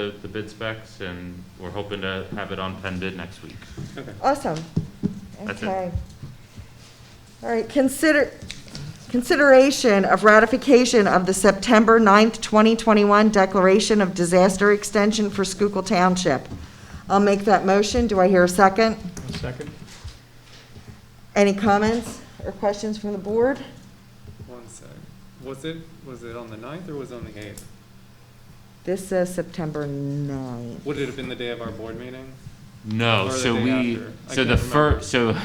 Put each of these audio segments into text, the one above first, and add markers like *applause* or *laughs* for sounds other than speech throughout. the the bid specs, and we're hoping to have it on pen bid next week. Awesome. That's it. Okay. All right, consider, consideration of ratification of the September 9th, 2021 Declaration of Disaster Extension for Schuylkill Township. I'll make that motion. Do I hear a second? Second? Any comments or questions from the board? One sec. Was it, was it on the ninth or was it on the eighth? This says September 9th. Would it have been the day of our board meeting? No, Or the so day we, after. I so the can't remember. first, so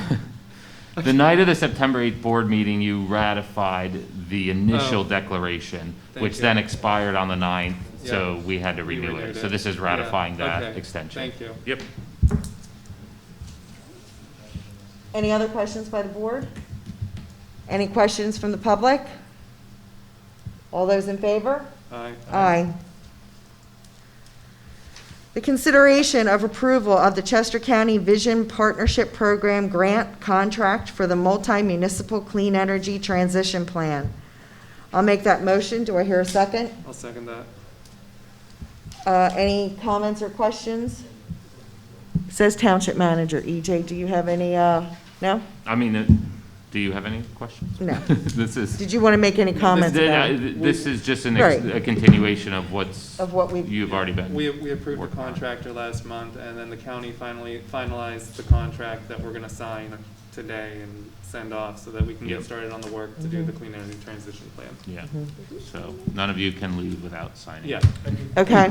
*laughs* the night of the September 8th board meeting, you ratified the initial Oh. declaration, Thank which you. then expired on the 9th, so Yeah. we had to You renew it. renewed So this is Yeah, ratifying that okay. extension. Thank you. Yep. Any other questions by the board? Any questions from the public? All those in favor? Aye. Aye. The consideration of approval of the Chester County Vision Partnership Program Grant Contract for the Multi-Municipal Clean Energy Transition Plan. I'll make that motion. Do I hear a second? I'll second that. Uh, Any comments or questions? Says Township Manager. EJ, do you have any, uh, no? I mean, uh, do you have any questions? No. *laughs* This is. Did you want to make any comments This- about uh, This is just an ex- Right. a continuation of what's, of what we've, you've already been. We, we approved the Working on it. contractor last month and then the county finally finalized the contract that we're gonna sign today and send off so that we can Yep. get started on the work to do Mhm. the clean energy transition plan. Yeah, so none of you can leave without signing. Yeah, okay.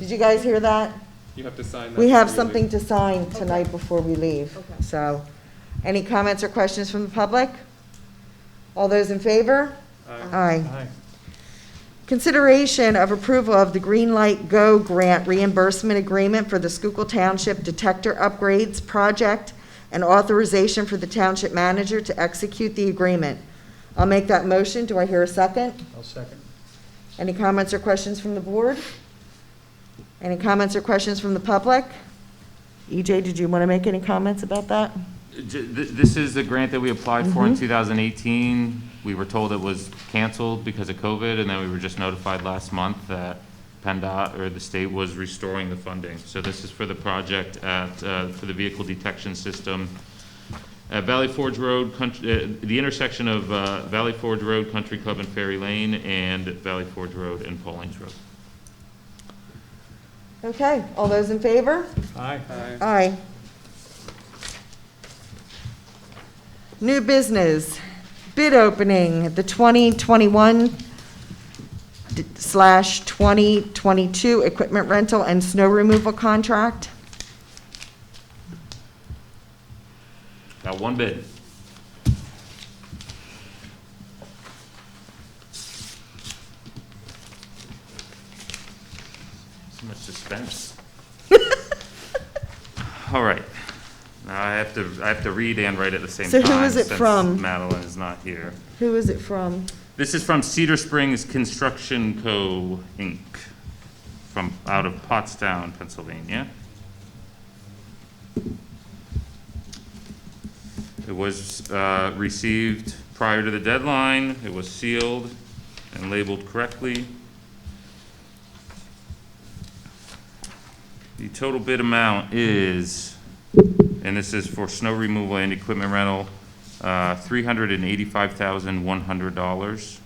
Did you guys hear that? you have to sign that. We have before you leave. something to sign tonight before we leave, so. Any comments or questions from the public? All those in favor? Aye. Aye. Consideration of approval of the Green Light Go Grant reimbursement agreement for the Schuylkill Township Detector Upgrades Project and authorization for the township manager to execute the agreement. I'll make that motion. Do I hear a second? I'll second. Any comments or questions from the board? Any comments or questions from the public? EJ, did you want to make any comments about that? J- th- This is a grant that we applied for in 2018. We were told it was canceled because of COVID, and then we were just notified last month that PennDOT or the state was restoring the funding. So this is for the project at, uh, for the vehicle detection system at Valley Forge Road, Country- uh, the intersection of uh, Valley Forge Road, Country Club and Ferry Lane, and Valley Forge Road and Paulings Road. Okay, all those in favor? Aye. Aye. Aye. New business, bid opening, the 2021 d- slash 2022 equipment rental and snow removal contract. Got one bid. So much suspense. *laughs* All right. Now I have to, I have to read and write at the same So time. who is it since from? Madeline is not here. Who is it from? This is from Cedar Springs Construction Co., Inc., from, out of Pottstown, Pennsylvania. It was uh, received prior to the deadline, it was sealed and labeled correctly. The total bid amount is, and this is for snow removal and equipment rental, uh, $385,100.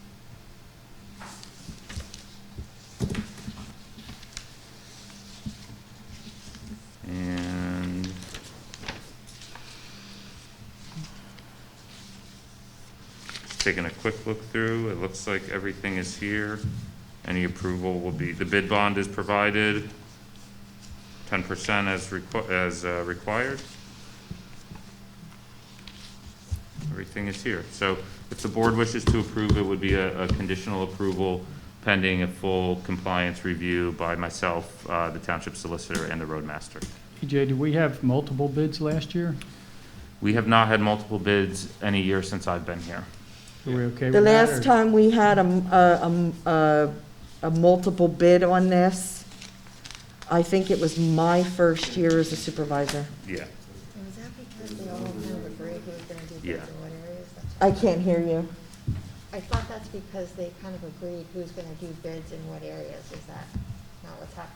And just taking a quick look through, it looks like everything is here. Any approval will be, the bid bond is provided, 10% as requ- as uh, required. Everything is here. So if the board wishes to approve, it would be a, a conditional approval pending a full compliance review by myself, uh, the township solicitor, and the roadmaster. EJ, did we have multiple bids last year? We have not had multiple bids any year since I've been here. Are we okay The with that? last or- time we had a, m- a- a m- a- a multiple bid on this, I think it was my first year as a supervisor. Yeah. And Was that because they all kind of agreed who was gonna do Yeah. bids in what areas? That's- I can't hear you. I thought that's because they kind of agreed who's gonna do bids in what areas, is that not what's happening?